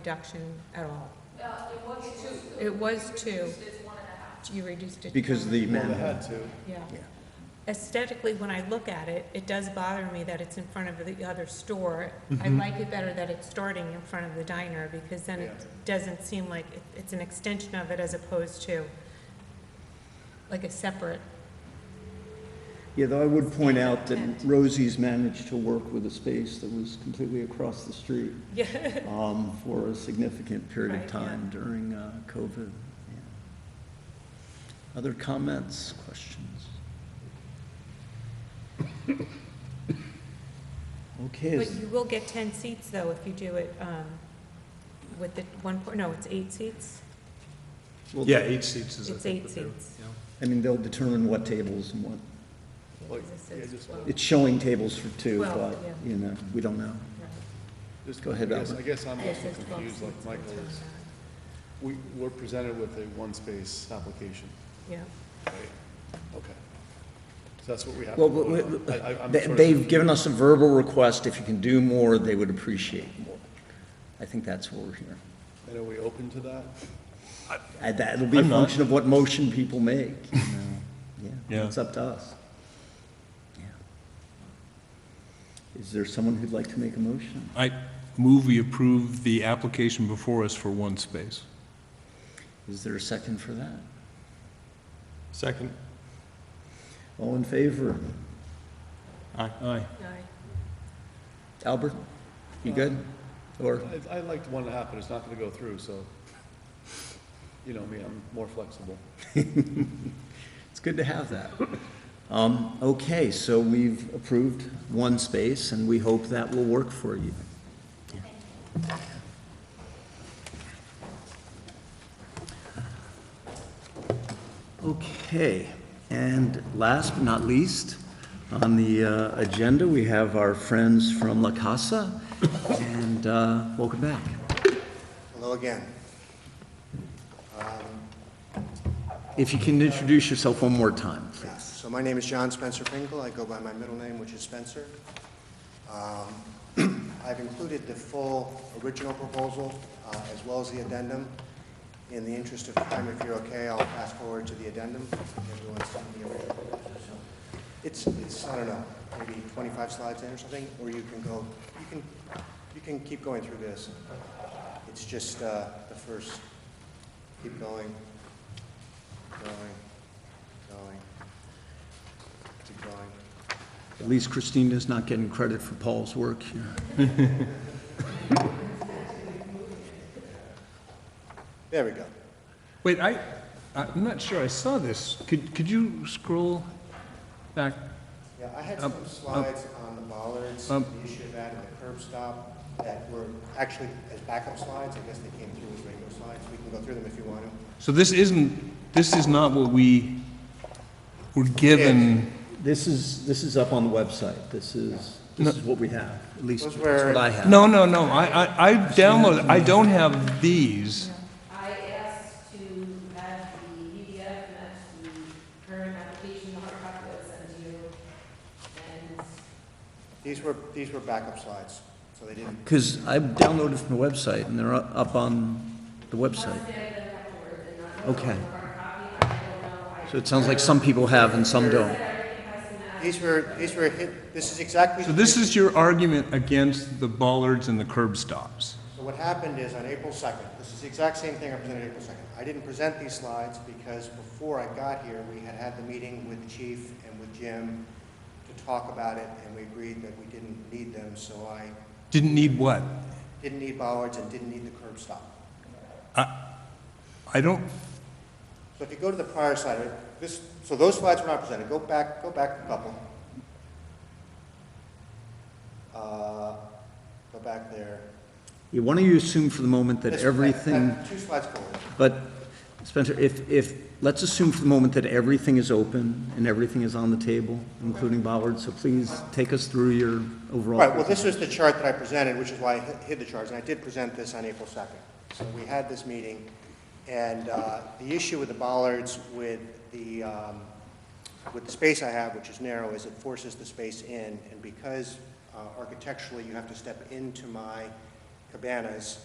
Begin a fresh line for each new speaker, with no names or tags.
reduction at all? Uh, It was two. You reduced it.
Because
to
the
one.
men.
Yeah.
Yeah.
Aesthetically, when I look at it, it does bother me that it's in front of the other store. I
Mm-hmm.
like it better that it's starting in front of the diner because then it doesn't seem like it- it's an extension of it as opposed to like a separate.
Yeah, though I would point out that Rosie's managed to work with a space that was completely across the street
Yeah.
um, for a significant period
Right,
of
yeah.
time during uh, COVID. Yeah. Other comments, questions? Okay,
But
is-
you will get 10 seats though if you do it um, with the one, por- no, it's eight seats?
well,
Yeah, eight seats is, I
It's
think,
eight
what they're-
seats.
yeah.
I mean, they'll determine what tables and what,
Like,
This
yeah,
is
just,
twelve.
it's showing tables for two,
Well,
but,
yeah.
you know, we don't know.
just,
Go ahead,
I guess,
Albert.
I guess I'm
Yes,
also
it's 12
confused, like
seats,
Michael
something
is.
like
We, we're presented with a one-space application,
that. Yeah.
right? Okay. So that's what we have. to
Well,
vote
w-
on. I- I-
w-
I'm
they-
sort of
they've given us a verbal request, if you can do more, they would appreciate more. I think that's what we're hearing.
confused. And are we open to that?
And that'll be a
I'm not.
function of what motion people make, you know, yeah,
Yeah.
it's up to us. Yeah. Is there someone who'd like to make a motion?
I move we approve the application before us for one space.
Is there a second for that?
Second.
All in favor?
Aye. Aye.
Aye.
Albert, you good? Or,
I, I liked one and a half, but it's not gonna go through, so, you know me, I'm more flexible.
it's good to have that. Um, okay, so we've approved one space, and we hope that will work for you. Okay, and last but not least, on the uh, agenda, we have our friends from La Casa, and uh, welcome back.
Hello again.
If you can introduce yourself one more time,
Yeah,
please.
So my name is John Spencer Finkel. I go by my middle name, which is Spencer. Um, I've included the full original proposal uh, as well as the addendum. In the interest of time, if you're okay, I'll pass forward to the addendum. Everyone's seen the original proposal. So It's, it's, I don't know, maybe 25 slides in or something, or you can go, you can, you can keep going through this. It's just uh, the first, keep going, going, going, keep going.
At least Christina's not getting credit for Paul's work here.
There we go.
Wait, I, I'm not sure I saw this. Could, could you scroll back?
Yeah, I had
Um,
some
um,
slides on the bollards, the
um,
issue of that and the curb stop that were actually as backup slides. I guess they came through as regular slides. We can go through them if you want to.
So this isn't, this is not what we were given.
This is, this is up on the website. This is, this is what we have, at least
Those
that's
were-
what I have.
No, no, no, I, I, I downloaded, I don't have these.
I asked to have the PDF match the current application, the hard copy that was sent to you, and
These were, these were backup slides, so they didn't,
Because I downloaded from the website, and they're up up on the website. Okay. So it sounds like some people have and some don't.
these were, these were, hit- this is exactly.
So this is your argument against the bollards and the curb stops?
So what happened is on April 2nd, this is the exact same thing I presented April 2nd. I didn't present these slides because before I got here, we had had the meeting with the chief and with Jim to talk about it, and we agreed that we didn't need them, so I
Didn't need what?
didn't need bollards and didn't need the curb stop.
I don't,
So if you go to the prior slide, this, so those slides were not presented, go back, go back a couple. Uh, Go back there.
You want to assume for the moment that
This-
everything,
Two slides forward.
but Spencer, if, if, let's assume for the moment that everything is open and everything is on the table, including bollards, so please take us through your overall.
Right, well, this was the chart that I presented, which is why I hi- hid the charts, and I did present this on April 2nd. So we had this meeting, and uh, the issue with the bollards, with the, um, with the space I have, which is narrow, is it forces the space in, and because uh, architecturally, you have to step into my cabanas,